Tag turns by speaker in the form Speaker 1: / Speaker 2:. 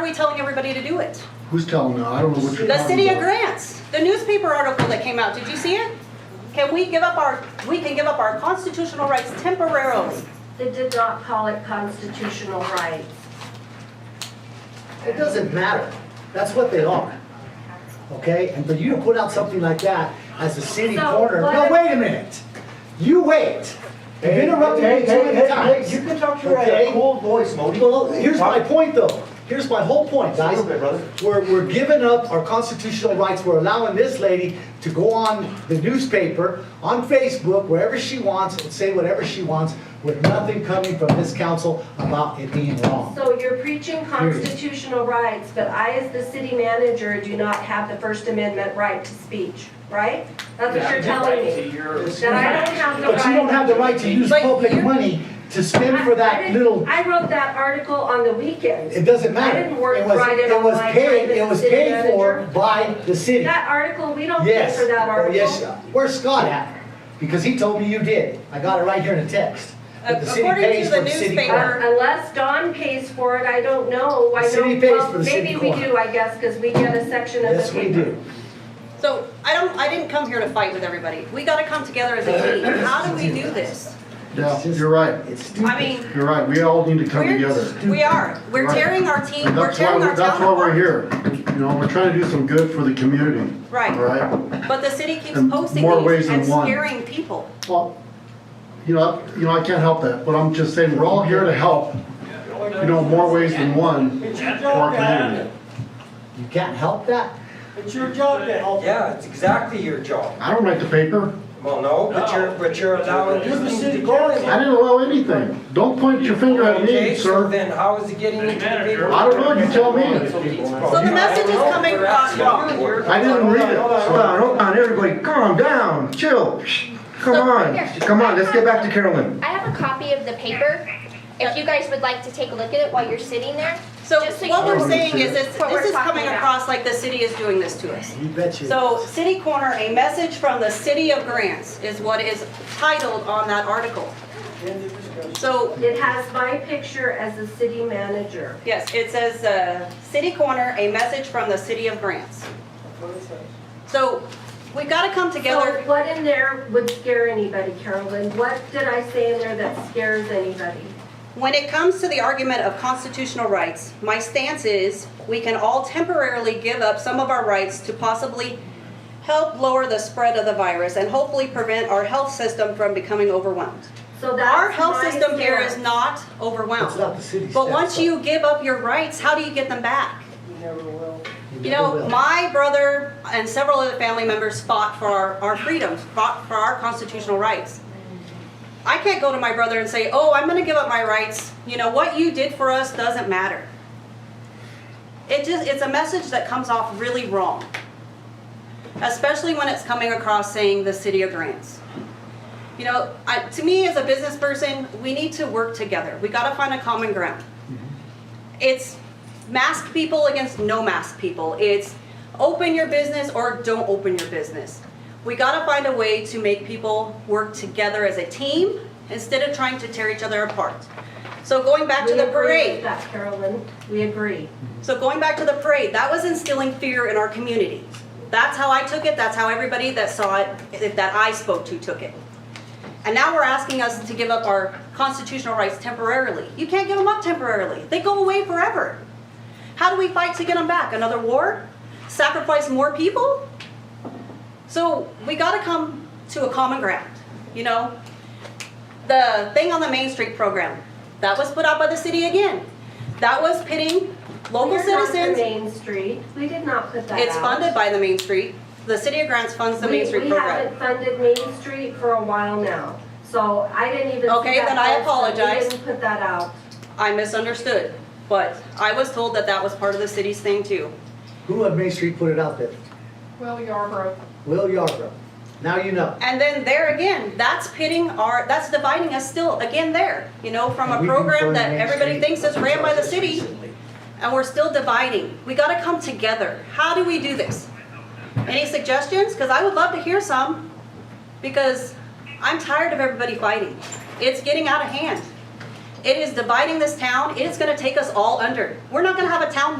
Speaker 1: we telling everybody to do it?
Speaker 2: Who's telling them? I don't know what you're talking
Speaker 1: The city of
Speaker 2: about.
Speaker 1: Grants, the newspaper article that came out, did you see it? Can we give up our, we can give up our constitutional rights temporarily.
Speaker 3: They did not call it constitutional rights.
Speaker 4: It doesn't matter. That's what they are. Okay? And for you to put out something like that as a city
Speaker 3: So,
Speaker 4: corner, no,
Speaker 3: what-
Speaker 4: wait a minute. You wait. You've
Speaker 5: Hey,
Speaker 4: interrupted
Speaker 5: hey,
Speaker 4: me too
Speaker 5: hey,
Speaker 4: many
Speaker 5: hey, hey,
Speaker 4: times.
Speaker 5: You can talk to your
Speaker 4: Okay?
Speaker 5: uh, cool voice, Modi.
Speaker 4: Well, here's my point though. Here's my whole point,
Speaker 5: Just a
Speaker 4: guys.
Speaker 5: little bit, brother.
Speaker 4: We're, we're giving up our constitutional rights. We're allowing this lady to go on the newspaper, on Facebook, wherever she wants, and say whatever she wants, with nothing coming from this council about it being wrong.
Speaker 3: So you're preaching constitutional rights, but I, as the city manager, do not have the First Amendment right to speech, right? That's what you're telling me. That I don't have the right.
Speaker 4: But you don't have the right to use
Speaker 1: But
Speaker 4: public
Speaker 1: you're-
Speaker 4: money to spend
Speaker 3: I-
Speaker 4: for
Speaker 3: I
Speaker 4: that
Speaker 3: didn't-
Speaker 4: little,
Speaker 3: I wrote that article on the weekend.
Speaker 4: it doesn't matter.
Speaker 3: I didn't work
Speaker 4: It was-
Speaker 3: Friday
Speaker 4: It was
Speaker 3: on my
Speaker 4: paid,
Speaker 3: time as
Speaker 4: it was
Speaker 3: the city
Speaker 4: paid for
Speaker 3: manager.
Speaker 4: by the city.
Speaker 3: That article, we don't pay
Speaker 4: Yes.
Speaker 3: for that
Speaker 4: Oh,
Speaker 3: article.
Speaker 4: Yes, where's Scott at? Because he told me you did. I got it right here in a text. That the city
Speaker 1: According to
Speaker 4: pays
Speaker 1: the
Speaker 4: for city
Speaker 1: newspaper-
Speaker 4: clerk.
Speaker 3: Uh, Unless Don pays for it, I don't know. Why
Speaker 4: The city
Speaker 3: don't-
Speaker 4: pays
Speaker 3: well,
Speaker 4: for the city
Speaker 3: Maybe we
Speaker 4: corner.
Speaker 3: do, I guess, because we get a section of the
Speaker 4: Yes,
Speaker 3: paper.
Speaker 4: we do.
Speaker 1: So I don't, I didn't come here to fight with everybody. We gotta come together as a team. How do we do this?
Speaker 4: It's
Speaker 2: Yeah,
Speaker 4: just-
Speaker 2: you're right.
Speaker 4: It's stupid.
Speaker 1: I mean,
Speaker 2: You're right. We all need to come together.
Speaker 1: we're, we are, we're
Speaker 2: Right.
Speaker 1: tearing our team,
Speaker 2: And
Speaker 1: we're
Speaker 2: that's why,
Speaker 1: tearing our town apart.
Speaker 2: that's why we're here. You know, we're trying to do some good for the community.
Speaker 1: Right.
Speaker 2: Right?
Speaker 1: But the city keeps
Speaker 2: In
Speaker 1: posting
Speaker 2: more
Speaker 1: these
Speaker 2: ways than
Speaker 1: and
Speaker 2: one.
Speaker 1: scaring people.
Speaker 2: Well, you know, you know, I can't help that, but I'm just saying, we're all here to help, you know, more ways than one
Speaker 6: It's
Speaker 2: for
Speaker 6: your
Speaker 2: our
Speaker 6: job to handle
Speaker 2: community.
Speaker 6: it.
Speaker 4: You can't help that?
Speaker 6: It's your job to help.
Speaker 7: Yeah, it's exactly your job.
Speaker 2: I don't write the paper.
Speaker 7: Well, no, but you're, but you're allowing
Speaker 6: You're the
Speaker 7: these things
Speaker 6: city
Speaker 7: to go in.
Speaker 2: I didn't allow anything. Don't point your finger at
Speaker 7: Okay,
Speaker 2: me,
Speaker 7: so
Speaker 2: sir.
Speaker 7: then how is it getting into the paper?
Speaker 2: I don't know, you tell me.
Speaker 1: So the message is coming across wrong.
Speaker 2: I didn't read it.
Speaker 5: Hold on, hold on, everybody, calm down, chill. Come
Speaker 8: Here,
Speaker 5: on, come on, let's get back to Carolyn.
Speaker 8: I have a copy of the paper. If you guys would like to take a look at it while you're sitting there.
Speaker 1: So
Speaker 8: just you
Speaker 1: what
Speaker 8: know.
Speaker 1: we're saying is this,
Speaker 8: What
Speaker 1: this
Speaker 8: we're
Speaker 1: is coming
Speaker 8: talking about.
Speaker 1: across like the city is doing this to us.
Speaker 4: You bet you.
Speaker 1: So City Corner, a message from the city of Grants is what is titled on that article. So,
Speaker 3: It has my picture as the city manager.
Speaker 1: yes, it says, uh, City Corner, a message from the city of Grants. So we've got to come
Speaker 3: So
Speaker 1: together.
Speaker 3: what in there would scare anybody, Carolyn? What did I say in there that scares anybody?
Speaker 1: When it comes to the argument of constitutional rights, my stance is we can all temporarily give up some of our rights to possibly help lower the spread of the virus and hopefully prevent our health system from becoming overwhelmed.
Speaker 3: So that's
Speaker 1: Our health
Speaker 3: my
Speaker 1: system here
Speaker 3: stance.
Speaker 1: is not
Speaker 4: It's not
Speaker 1: overwhelmed.
Speaker 4: the city's.
Speaker 1: But
Speaker 4: fault.
Speaker 1: once you give up your rights, how do you get them back? You
Speaker 4: never
Speaker 1: know,
Speaker 4: will.
Speaker 1: my brother and several other family members fought for our, our freedoms, fought for our constitutional rights. I can't go to my brother and say, oh, I'm gonna give up my rights. You know, what you did for us doesn't matter. It just, it's a message that comes off really wrong. Especially when it's coming across saying the city of grants. You know, I, to me, as a business person, we need to work together. We gotta find a common ground it's mask people against no mask people. It's open your business or don't open your business. We gotta find a way to make people work together as a team instead of trying to tear each other apart. So going back to
Speaker 3: We
Speaker 1: the
Speaker 3: agree with
Speaker 1: parade,
Speaker 3: that, Carolyn. We agree.
Speaker 1: so going back to the parade, that was instilling fear in our community. That's how I took it, that's how everybody that saw it, that I spoke to took it. And now we're asking us to give up our constitutional rights temporarily. You can't give them up temporarily. They go away forever. How do we fight to get them back? Another war? Sacrifice more people? So we got to come to a common ground, you know? The thing on the Main Street program, that was put out by the city again. That was pitting local
Speaker 3: We're not the
Speaker 1: citizens.
Speaker 3: Main Street. We did not put that out.
Speaker 1: It's funded by the Main Street. The city of Grants funds the
Speaker 3: We-
Speaker 1: Main Street
Speaker 3: We
Speaker 1: program.
Speaker 3: haven't funded Main Street for a while now, so I didn't even. see
Speaker 1: Okay,
Speaker 3: that
Speaker 1: then I
Speaker 3: posted.
Speaker 1: apologize.
Speaker 3: We didn't put that out.
Speaker 1: I misunderstood, but I was told that that was part of the city's thing too.
Speaker 4: Who on Main Street put it out there?
Speaker 9: Well, Yarborough.
Speaker 4: Will Yarborough. Now you know.
Speaker 1: And then there again, that's pitting our, that's dividing us still again there, you know, from a
Speaker 4: We've been
Speaker 1: program
Speaker 4: for
Speaker 1: that
Speaker 4: Main
Speaker 1: everybody
Speaker 4: Street
Speaker 1: thinks is ran by the
Speaker 4: just
Speaker 1: city,
Speaker 4: recently.
Speaker 1: and we're still dividing. We gotta come together. How do we do this? Any suggestions? Because I would love to hear some, because I'm tired of everybody fighting. It's getting out of hand. It is dividing this town. It is gonna take us all under. We're not gonna have a town left